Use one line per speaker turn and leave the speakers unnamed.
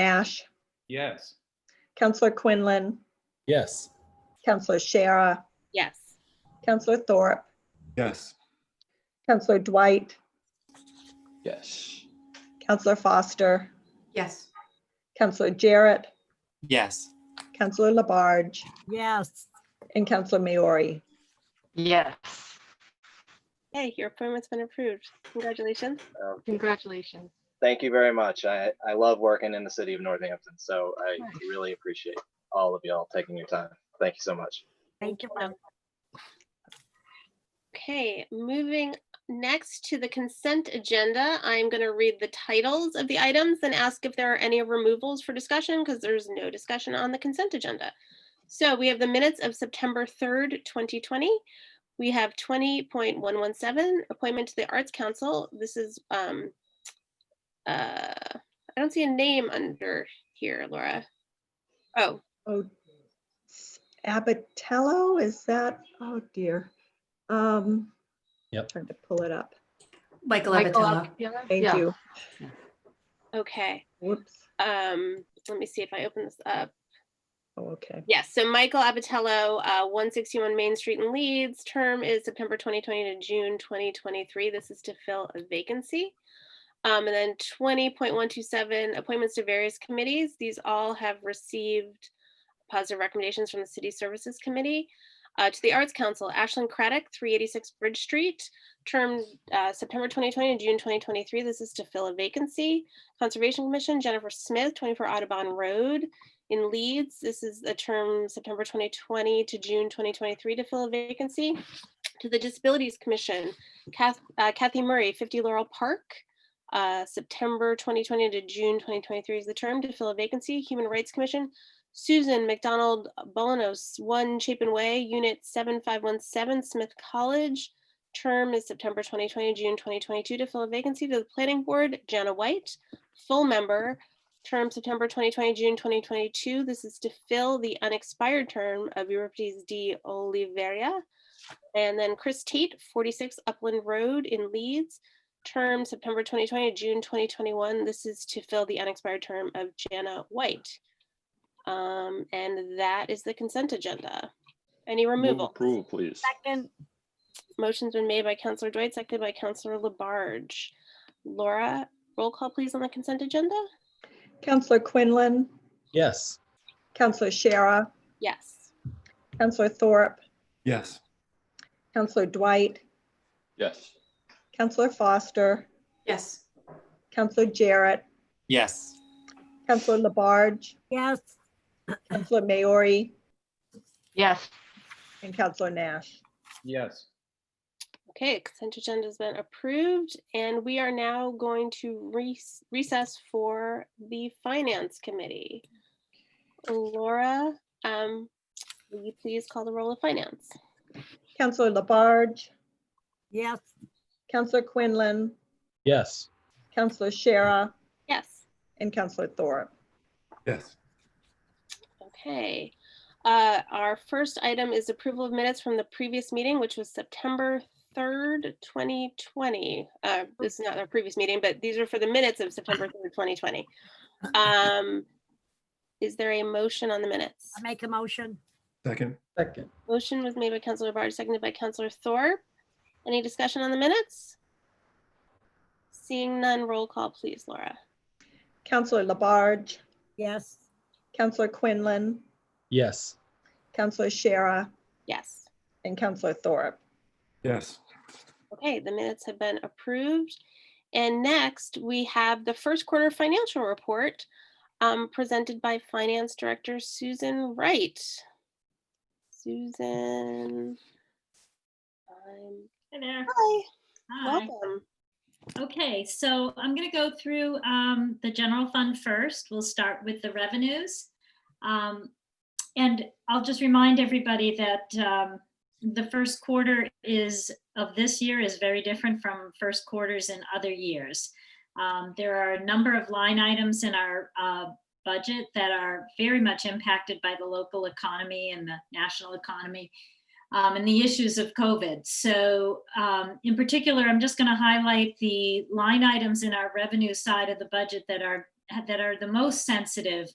Nash,
Yes.
Counselor Quinlan,
Yes.
Counselor Shara,
Yes.
Counselor Thorpe,
Yes.
Counselor Dwight,
Yes.
Counselor Foster,
Yes.
Counselor Jarrett,
Yes.
Counselor Labarge,
Yes.
and Counselor Maori.
Yes.
Hey, your appointment's been approved. Congratulations.
Um,
Congratulations.
Thank you very much. I, I love working in the city of Northampton, so I
Nice.
really appreciate all of y'all taking your time. Thank you so much.
Thank you, Mike.
Okay, moving next to the consent agenda, I'm going to read the titles of the items and ask if there are any removals for discussion because there's no discussion on the consent agenda. So we have the minutes of September 3rd, 2020. We have 20.117, appointment to the Arts Council. This is, um, uh, I don't see a name under here, Laura. Oh,
Oh, s- Abatello, is that, oh dear. Um,
Yep.
Trying to pull it up.
Michael
Michael
Abatello.
Abdallah?
Thank
Yeah.
you.
okay.
Whoops.
Um, let me see if I open this up.
Oh, okay.
Yes, so Michael Abatello, uh, 161 Main Street in Leeds, term is September 2020 to June 2023. This is to fill a vacancy. Um, and then 20.127, appointments to various committees. These all have received positive recommendations from the City Services Committee. Uh, to the Arts Council, Ashland Craddock, 386 Bridge Street, term uh, September 2020 to June 2023. This is to fill a vacancy. Conservation Commission, Jennifer Smith, 24 Audubon Road in Leeds. This is a term September 2020 to June 2023 to fill a vacancy. To the Disabilities Commission, Kath- uh, Kathy Murray, 50 Laurel Park, uh, September 2020 to June 2023 is the term to fill a vacancy. Human Rights Commission, Susan McDonald Bolanos, 1 Chapin Way, Unit 7517, Smith College. Term is September 2020 to June 2022 to fill a vacancy. To the Planning Board, Jana White, full member, term September 2020, June 2022. This is to fill the unexpired term of Euripides D. Oliveira. And then Chris Tate, 46 Upland Road in Leeds, term September 2020, June 2021. This is to fill the unexpired term of Jana White. Um, And that is the consent agenda. Any removal?
Approval, please.
Second,
Motion's been made by Counselor Dwight, seconded by Counselor Labarge. Laura, roll call please on the consent agenda?
Counselor Quinlan,
Yes.
Counselor Shara,
Yes.
Counselor Thorpe,
Yes.
Counselor Dwight,
Yes.
Counselor Foster,
Yes.
Counselor Jarrett,
Yes.
Counselor Labarge,
yes.
Counselor Maori,
Yes.
and Counselor Nash.
Yes.
Okay, consent agenda's been approved, and we are now going to rec- recess for the Finance Committee. Laura, um, will you please call the roll of Finance?
Counselor Labarge,
Yes.
Counselor Quinlan,
Yes.
Counselor Shara,
Yes,
and Counselor Thorpe.
Yes.
okay. Uh, Our first item is approval of minutes from the previous meeting, which was September 3rd, 2020. Uh, This is not our previous meeting, but these are for the minutes of September 3rd, 2020. Um, Is there a motion on the minutes?
I make a motion.
Second.
Second.
Motion was made by Counselor Labarge, seconded by Counselor Thorpe. Any discussion on the minutes? Seeing none, roll call, please, Laura.
Counselor Labarge,
Yes.
Counselor Quinlan,
Yes.
Counselor Shara,
Yes.
and Counselor Thorpe.
Yes.
Okay, the minutes have been approved. And next, we have the first quarter financial report um, presented by Finance Director Susan Wright. Susan. um,
Hi there.
Hi,
Hi.
welcome.
Okay, so I'm going to go through um, the general fund first. We'll start with the revenues. Um, And I'll just remind everybody that um, the first quarter is, of this year is very different from first quarters in other years. Um, There are a number of line items in our uh, budget that are very much impacted by the local economy and the national economy um, and the issues of COVID. So, um, in particular, I'm just going to highlight the line items in our revenue side of the budget that are that are the most sensitive